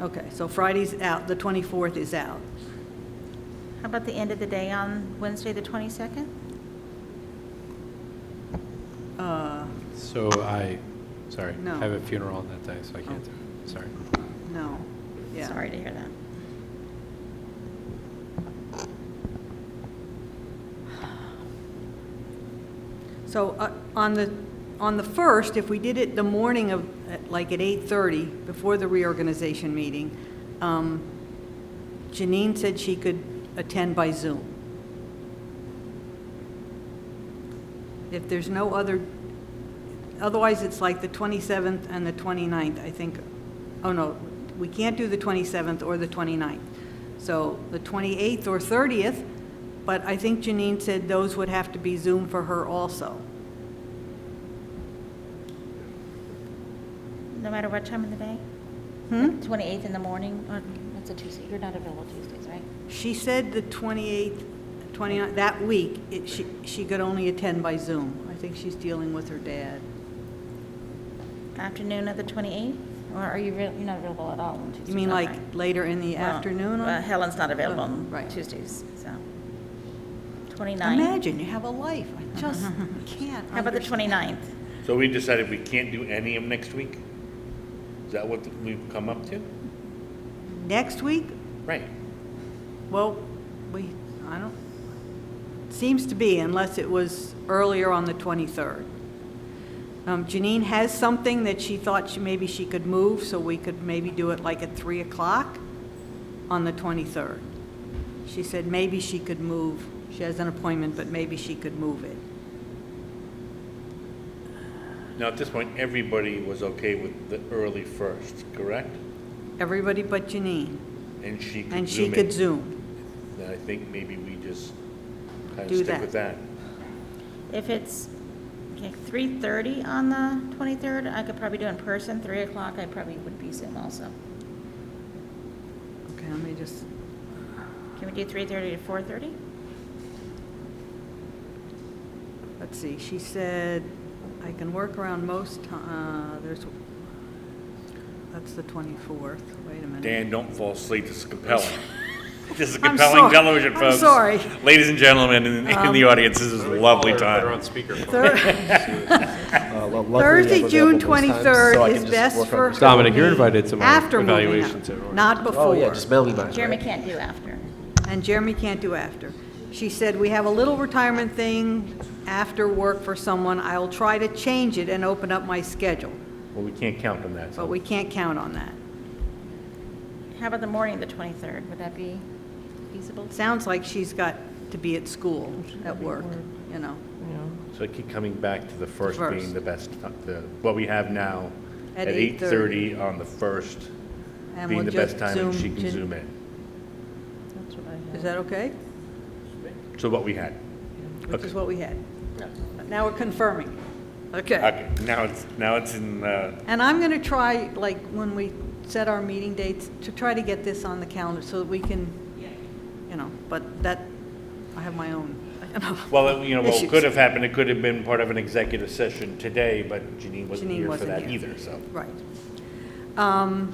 Okay, so Friday's out, the 24th is out. How about the end of the day on Wednesday, the 22nd? Uh, So I, sorry, No. I have a funeral on that day, so I can't do it, sorry. No, yeah. Sorry to hear that. So uh, on the, on the 1st, if we did it the morning of, at- like at 8:30, before the reorganization meeting, um, Janine said she could attend by Zoom. If there's no other, otherwise it's like the 27th and the 29th, I think, oh no, we can't do the 27th or the 29th. So the 28th or 30th, but I think Janine said those would have to be Zoom for her also. No matter what time of the day? Hmm? 28th in the morning, or, that's a Tuesday, you're not available Tuesdays, right? She said the 28th, 29th, that week, it- she she could only attend by Zoom. I think she's dealing with her dad. Afternoon of the 28th, or are you, real- you're not available at all on Tuesdays? You mean like Okay. later in the Well, afternoon? on- well, Helen's not available Oh, on right. Tuesdays, so. 29th? Imagine, you have a life. I just can't. How about the understand. 29th? So we decided we can't do any of them next week? Is that what we've come up to? Next week? Right. Well, we, I don't, seems to be unless it was earlier on the 23rd. Um, Janine has something that she thought she, maybe she could move, so we could maybe do it like at 3 o'clock on the 23rd. She said maybe she could move, she has an appointment, but maybe she could move it. Now, at this point, everybody was okay with the early first, correct? Everybody but Janine, And she could zoom in. and she could Zoom. Then I think maybe we just kind Do of stick that. with that. If it's, okay, 3:30 on the 23rd, I could probably do in person, 3 o'clock, I probably would be Zoom also. Okay, let me just, Can we do 3:30 to 4:30? let's see, she said, I can work around most, ti- uh, there's, that's the 24th, wait a minute. Dan, don't fall asleep, this is compelling. This is I'm compelling sorry. television, I'm folks. sorry. Um, Ladies and gentlemen in in the audience, this is a lovely Put her on time. speakerphone. Thir- Uh, lo- luckily, Thursday, I'm available June most times, so I 23rd can is just best work on for. this. Dominic, you're invited to my After moving evaluations out, everyone. Not Oh, yeah, before. just mail me mine. Jeremy right? can't do after. And Jeremy can't do after. She said, "We have a little retirement thing after work for someone. I'll try to change it and open up my schedule." Well, we can't count on that. so- But we can't count on that. How about the morning of the 23rd? Would that be feasible? Sounds like she's got to be at school, at work, you know, So I keep coming back to the first First. being the best, the, what we have now At at 8:30 on the first And we'll being the best ju- time and she Zoom can to- zoom in. is that okay? So what we had. Which is Okay. what we had. Now we're confirming. Okay. Okay, now it's, now it's in, uh, And I'm going to try, like, when we set our meeting dates, to try to get this on the calendar so that we can, you know, but that, I have my own, you know. well, you know, what issues. could have happened, it could have been part of an executive session today, but Janine wasn't Janine here for wasn't that here. either, so. Right. Um,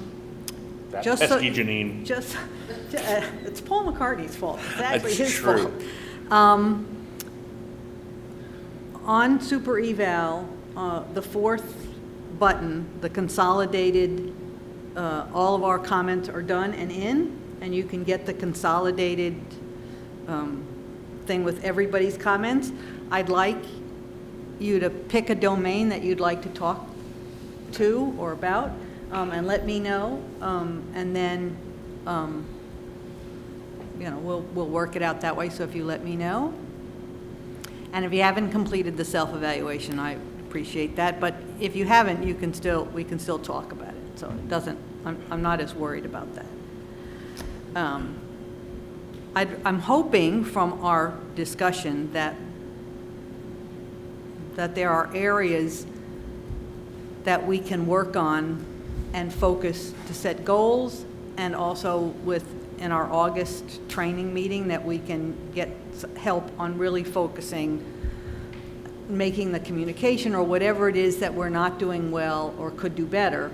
That Just so- pesky Janine, Just, uh, it's Paul McCartney's fault. It's actually That's his true. fault. Um, On Super Eval, uh, the fourth button, the consolidated, uh, all of our comments are done and in, and you can get the consolidated um, thing with everybody's comments. I'd like you to pick a domain that you'd like to talk to or about, um, and let me know, um, and then, um, you know, we'll, we'll work it out that way, so if you let me know. And if you haven't completed the self-evaluation, I appreciate that, but if you haven't, you can still, we can still talk about it, so it doesn't, I'm, I'm not as worried about that. Um, i I'm hoping from our discussion that, that there are areas that we can work on and focus to set goals, and also with, in our August training meeting, that we can get s- help on really focusing, making the communication, or whatever it is that we're not doing well or could do better,